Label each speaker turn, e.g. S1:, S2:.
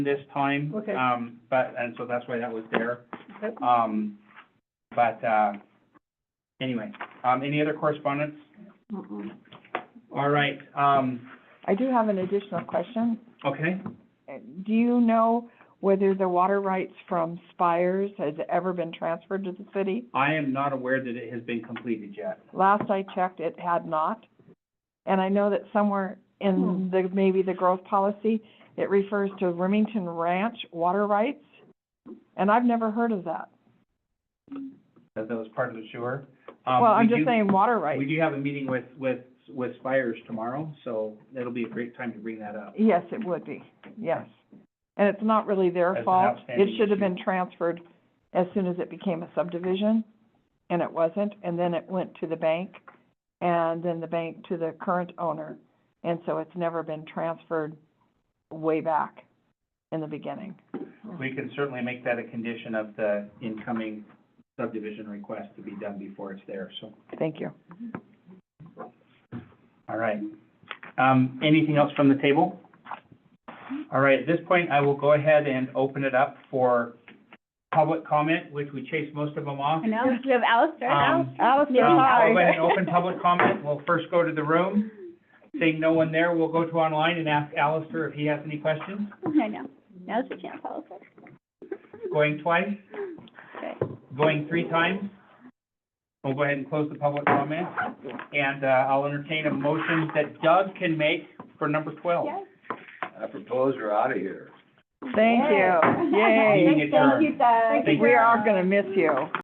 S1: this time.
S2: Okay.
S1: Um, but, and so that's why that was there.
S2: Yep.
S3: Uh,
S1: Um, but, uh, anyway, um, any other correspondence? All right, um,
S3: I do have an additional question.
S1: okay,
S3: Uh, Do you know whether the water rights from Spires has ever been transferred to the city?
S1: I am not aware that it has been completed yet.
S3: Last I checked, it had not. And I know that somewhere in the, maybe the growth policy, it refers to Remington Ranch water rights. And I've never heard of that.
S1: that that was part of the sewer. Um,
S3: Well,
S1: we
S3: I'm
S1: do-
S3: just saying water
S1: We
S3: rights.
S1: do have a meeting with, with, with Spires tomorrow, so that'll be a great time to bring that up.
S3: Yes, it would be, yes. And it's not really
S1: That's
S3: their
S1: an
S3: fault. It
S1: outstanding
S3: should have
S1: issue.
S3: been transferred as soon as it became a subdivision, and it wasn't. And then it went to the bank, and then the bank to the current owner. And so it's never been transferred way back in the beginning.
S1: We can certainly make that a condition of the incoming subdivision request to be done before it's there, so,
S3: Thank you.
S1: all right. Um, anything else from the table? All right, at this point, I will go ahead and open it up for public comment, which we chased most of them off.
S2: I know, we have Alistair,
S1: Um,
S2: Alistair.
S3: Alice,
S1: Um,
S2: Yeah.
S1: I'll go ahead and open public comment. We'll first go to the room. Seeing no one there, we'll go to online and ask Alistair if he has any questions.
S2: I know, now's the chance, Alistair.
S1: Going twice,
S2: Okay.
S1: going three times. We'll go ahead and close the public comment. And, uh, I'll entertain a motion that Doug can make for number twelve.
S2: Yes.
S4: I propose we're out of here.
S3: Thank you.
S2: Yay.
S3: Yay.
S1: Meeting adjourned.
S2: Thank you, Doug.
S1: Thank you.
S3: We are gonna miss you.